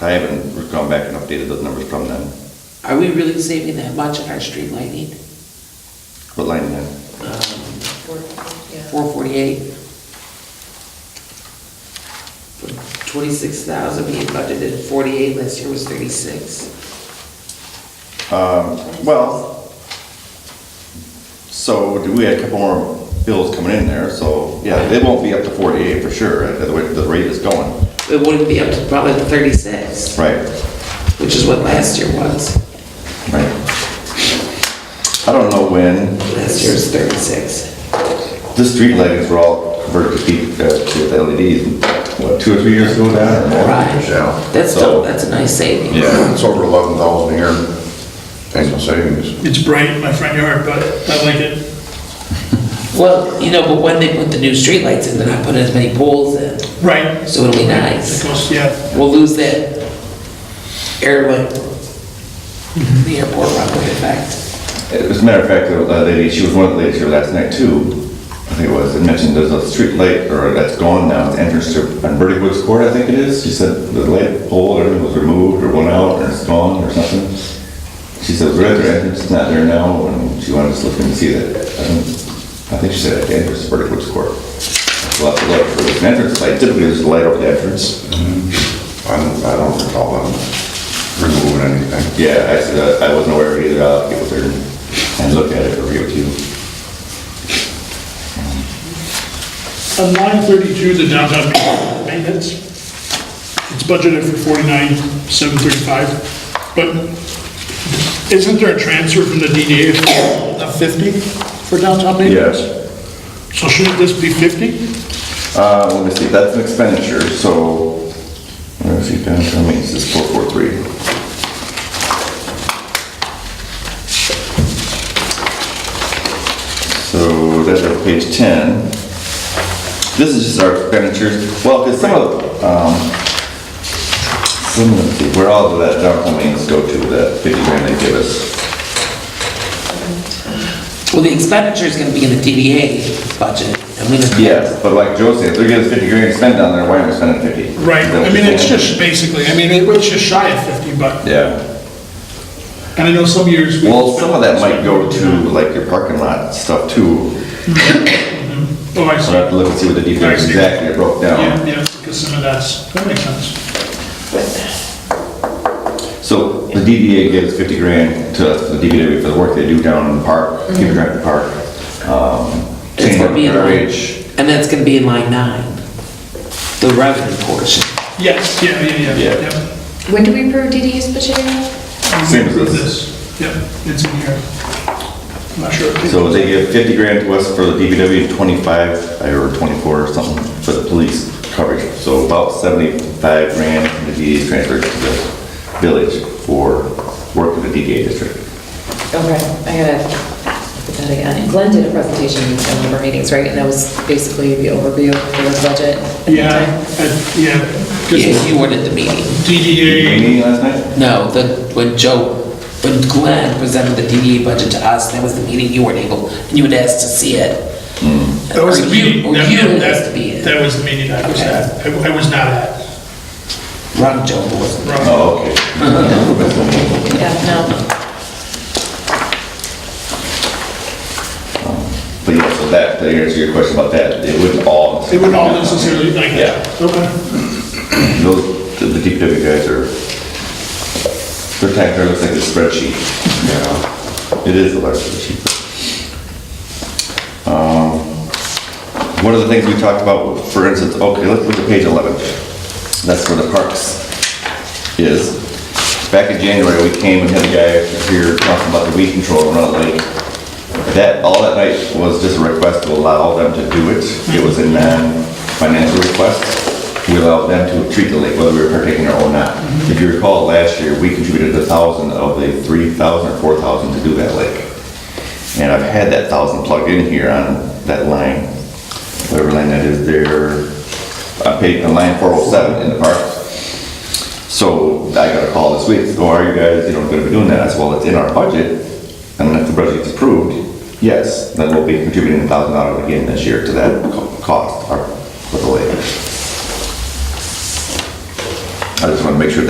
I haven't gone back and updated those numbers from then. Are we really saving that much on our street lighting? What line then? Four forty-eight? Twenty-six thousand being budgeted, forty-eight, last year was thirty-six. Um, well, so do we had a couple more bills coming in there, so, yeah, it won't be up to forty-eight for sure, the way the rate is going. It wouldn't be up to probably thirty-six, Right, which is what last year was. right. I don't know when, Last year was thirty-six. the street lightings were all converted to P- uh, to LEDs, what, two or three years ago now? or more? Right. Yeah, That's So- still, that's a nice saving. Yeah, it's over eleven thousand a year, annual savings. It's bright in my front yard, but I like it. Well, you know, but when they put the new streetlights in, they're not putting as many poles in, Right. so it'll be It nice. goes, yeah, We'll lose that airway, the airport runway effect. as a matter of fact, the lady, she was one of the ladies here last night too, I think it was, and mentioned there's a street light, or that's gone now, it's entrance to, on Verdict Woods Court, I think it is, she said the light pole, or everything was removed, or went out, or it's gone, or something. She said, we're at their entrance, it's not there now, and she wanted us to look and see that, I don't- I think she said at the entrance to Verdict Woods Court. We'll have to look, for an entrance light, typically there's a light over the entrance. I don't, I don't recall them removing anything. Yeah, I said, I wasn't aware of it either, I'll get with her and look at it, or give it to you. on line thirty-two, the downtown maintenance, it's budgeted for forty-nine, seven thirty-five, but isn't there a transfer from the DDA of fifty for downtown maintenance? Yes. So shouldn't this be fifty? Uh, let me see, that's an expenditure, so, let me see, downtown maintenance is four four three. So that's on page ten. This is just our expenditures, well, because some of, um, some of, the- where all of that downtown maintenance go to, that fifty grand they give us. Well, the expenditure is gonna be in the DDA budget, and we just. Yes, but like Joe said, if they're giving us fifty grand to spend down there, why aren't we spending fifty? Right, Is that what I mean, you're it's saying? just basically, I mean, it was just shy of fifty, but, Yeah. and I know some years. we- Well, some of that might go to like your parking lot stuff too. Oh, I So see. I have to look and see what the defense Nice. exactly broke Yeah, down. yeah, because some of that's, that makes sense. So the DDA gives 50 grand to us, for the DPW, for the work they do down in the park, keep track of the park. Um, It's cleaning gonna up be in line, garbage. and that's gonna be in line nine, the revenue portion. Yes, yeah, yeah, Yeah. yeah, yeah. When do we approve DD's budget again? Same as Approve this. Yep, it's in here. I'm not sure. So they give 50 grand to us for the DPW, and 25 or 24 or something for the police coverage. So about 75 grand from the DDA transferred to the village for work in the DDA district. Okay, Oh, I gotta put that again. And Glenn did a presentation in one of our meetings, right? And that was basically the overview for the budget. at the Yeah, time. I- yeah, Yes, because you weren't at the meeting. DDA, Meeting last night? No, the, when Joe, when Glenn presented the DDA budget to us, that was the meeting you weren't able, and you had asked to see it. that was Or the you- meeting. Or you that- had that- asked to be it. That was the meeting I was Okay. at. I I was not at. Ron Joe wasn't. Wrong. Oh, okay. Yeah, no, But yeah, so that, to answer your question about that, it wouldn't all. They wouldn't all necessarily like that. Yeah. Okay. Those, the DPW guys are, their tax card looks like a spreadsheet, you know? It is a large spreadsheet. Um, One of the things we talked about, for instance, okay, let's look at page 11. That's where the parks is. Back in January, we came and had a guy here talking about the weed control around the lake. That, all that night was just a request to allow them to do it. It was a non-financial request. We allowed them to treat the lake, whether we were partaking or not. If you recall, last year, we contributed a thousand of the three thousand or four thousand to do that lake. And I've had that thousand plugged in here on that line, whatever line that is there, I paid on line four oh seven in the park. So I got a call this week, so are you guys, you know, gonna be doing that? I said, well, it's in our budget, and if the budget's approved, yes, then we'll be contributing a thousand dollars again this year to that co- cost, or, for the lake. I just wanna make sure